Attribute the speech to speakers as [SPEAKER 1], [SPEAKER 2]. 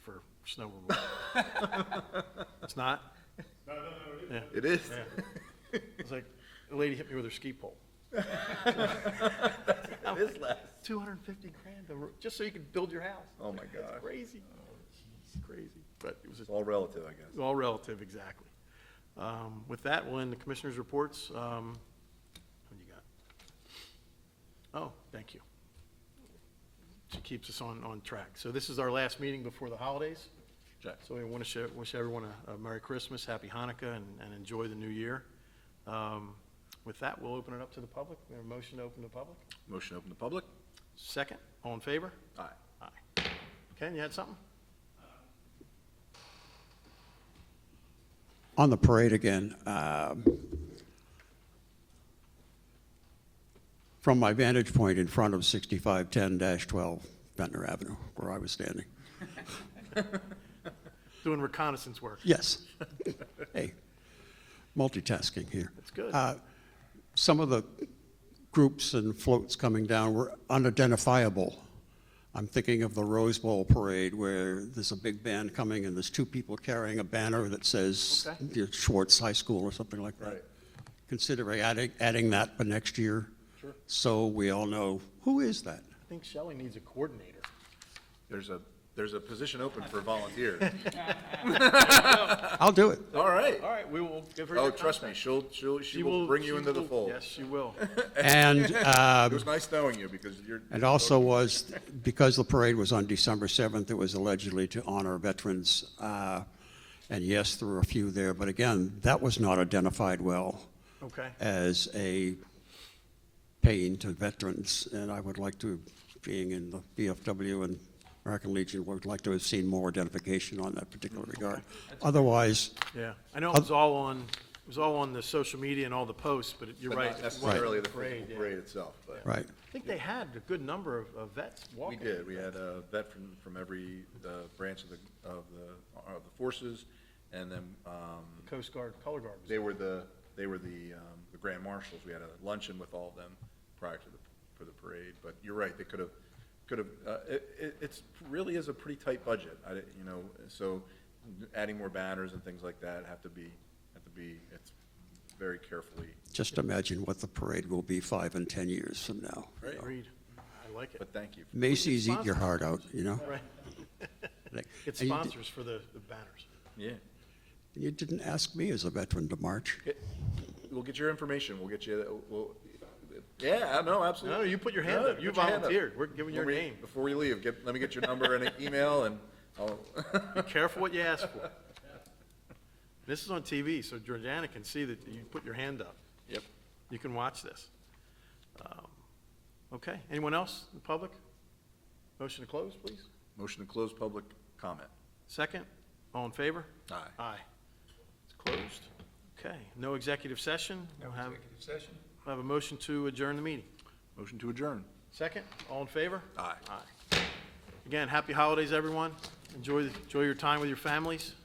[SPEAKER 1] It's no reward. It's not?
[SPEAKER 2] It is.
[SPEAKER 1] It's like, a lady hit me with her ski pole.
[SPEAKER 2] It is less.
[SPEAKER 1] Two hundred and fifty grand, to ru- just so you could build your house.
[SPEAKER 2] Oh, my
[SPEAKER 1] It's
[SPEAKER 2] God.
[SPEAKER 1] crazy. It's Crazy, but it was a
[SPEAKER 2] It's all relative, I guess.
[SPEAKER 1] It's all relative, exactly. Um, With that one, the commissioners' reports, um, what do you got? Oh, thank you. She keeps us on, on track. So this is our last meeting before the holidays. So we want to wish everyone a a Merry Christmas, Happy Hanukkah, and, and enjoy the new year. Um, With that, we'll open it up to the public. We have a motion to open to public.
[SPEAKER 2] Motion open to public?
[SPEAKER 1] Second, all in favor?
[SPEAKER 2] Aye.
[SPEAKER 1] Aye. Ken, you had something?
[SPEAKER 3] On the parade again, um, from my vantage point in front of 6510-12 Ventnor Avenue, where I was standing.
[SPEAKER 1] Doing reconnaissance work.
[SPEAKER 3] Yes. Hey, multitasking here.
[SPEAKER 1] That's good.
[SPEAKER 3] Uh, Some of the groups and floats coming down were unidentifiable. I'm thinking of the Rose Bowl Parade where there's a big band coming and there's two people carrying a banner that says
[SPEAKER 1] Okay.
[SPEAKER 3] Schwartz High School or something like that.
[SPEAKER 2] Right.
[SPEAKER 3] Considering adding, adding that for next year.
[SPEAKER 1] Sure.
[SPEAKER 3] So we all know, who is that?
[SPEAKER 1] I think Shelley needs a coordinator.
[SPEAKER 2] There's a, there's a position open for volunteers.
[SPEAKER 3] I'll do it.
[SPEAKER 2] All right.
[SPEAKER 1] All right, we will give her.
[SPEAKER 2] Oh,
[SPEAKER 1] your
[SPEAKER 2] trust me,
[SPEAKER 1] contact.
[SPEAKER 2] she'll, she'll, she will bring you
[SPEAKER 1] she
[SPEAKER 2] into the
[SPEAKER 1] will-
[SPEAKER 2] fold.
[SPEAKER 1] Yes, she will.
[SPEAKER 3] And, um,
[SPEAKER 2] It was nice knowing you because you're.
[SPEAKER 3] It also was, because the parade was on December 7th, it was allegedly to honor veterans. uh, And yes, there were a few there, but again, that was not identified well
[SPEAKER 1] Okay.
[SPEAKER 3] as a pain to veterans. And I would like to, being in the BFW and American Legion, would like to have seen more identification on that particular regard. Otherwise,
[SPEAKER 1] Yeah, I know it was all on, it was all on the social media and all the posts, but you're
[SPEAKER 2] But
[SPEAKER 1] right.
[SPEAKER 2] not
[SPEAKER 1] it wasn't
[SPEAKER 2] Necessarily the
[SPEAKER 1] parade,
[SPEAKER 2] physical
[SPEAKER 1] yeah.
[SPEAKER 2] parade itself, but
[SPEAKER 3] right,
[SPEAKER 1] I think they had a good number of of vets
[SPEAKER 2] we
[SPEAKER 1] walking.
[SPEAKER 2] did. We had a vet from, from every, uh branch of the, of the, of the forces. And then, um,
[SPEAKER 1] Coast Guard, Color Guard. was-
[SPEAKER 2] they were the, they were the, um, the grand marshals. We had a luncheon with all of them prior to the, for the parade. But you're right, they could have, could have, uh, it, it, it's, really is a pretty tight budget. I, di- you know, so adding more banners and things like that have to be, have to be, it's very carefully.
[SPEAKER 3] just imagine what the parade will be five and 10 years from now.
[SPEAKER 1] Agreed. I like it.
[SPEAKER 2] But thank you.
[SPEAKER 3] Macy's eat your heart out, you know?
[SPEAKER 1] Right.
[SPEAKER 3] Like,
[SPEAKER 1] It's
[SPEAKER 3] and you-
[SPEAKER 1] sponsors for the the banners.
[SPEAKER 2] Yeah.
[SPEAKER 3] You didn't ask me as a veteran to march.
[SPEAKER 2] Get- We'll get your information. We'll get you, uh, we'll, yeah, I know, absolutely.
[SPEAKER 1] No, you put your hand
[SPEAKER 2] No,
[SPEAKER 1] up. You
[SPEAKER 2] put your hand up.
[SPEAKER 1] volunteered. We're giving your
[SPEAKER 2] Before we-
[SPEAKER 1] name.
[SPEAKER 2] Before we leave, get, let me get your number and an email and I'll,
[SPEAKER 1] Be careful what you ask for. This is on TV, so Georgiana can see that you put your hand up.
[SPEAKER 2] yep.
[SPEAKER 1] You can watch this. Um, Okay, anyone else in the public? Motion to close, please?
[SPEAKER 2] Motion to close public comment.
[SPEAKER 1] Second, all in favor?
[SPEAKER 2] Aye.
[SPEAKER 1] Aye. It's closed. Okay, no executive session. No executive session. Have a motion to adjourn the meeting.
[SPEAKER 2] Motion to adjourn.
[SPEAKER 1] Second, all in favor?
[SPEAKER 2] Aye.
[SPEAKER 1] Aye. Again, happy holidays, everyone. Enjoy, enjoy your time with your families.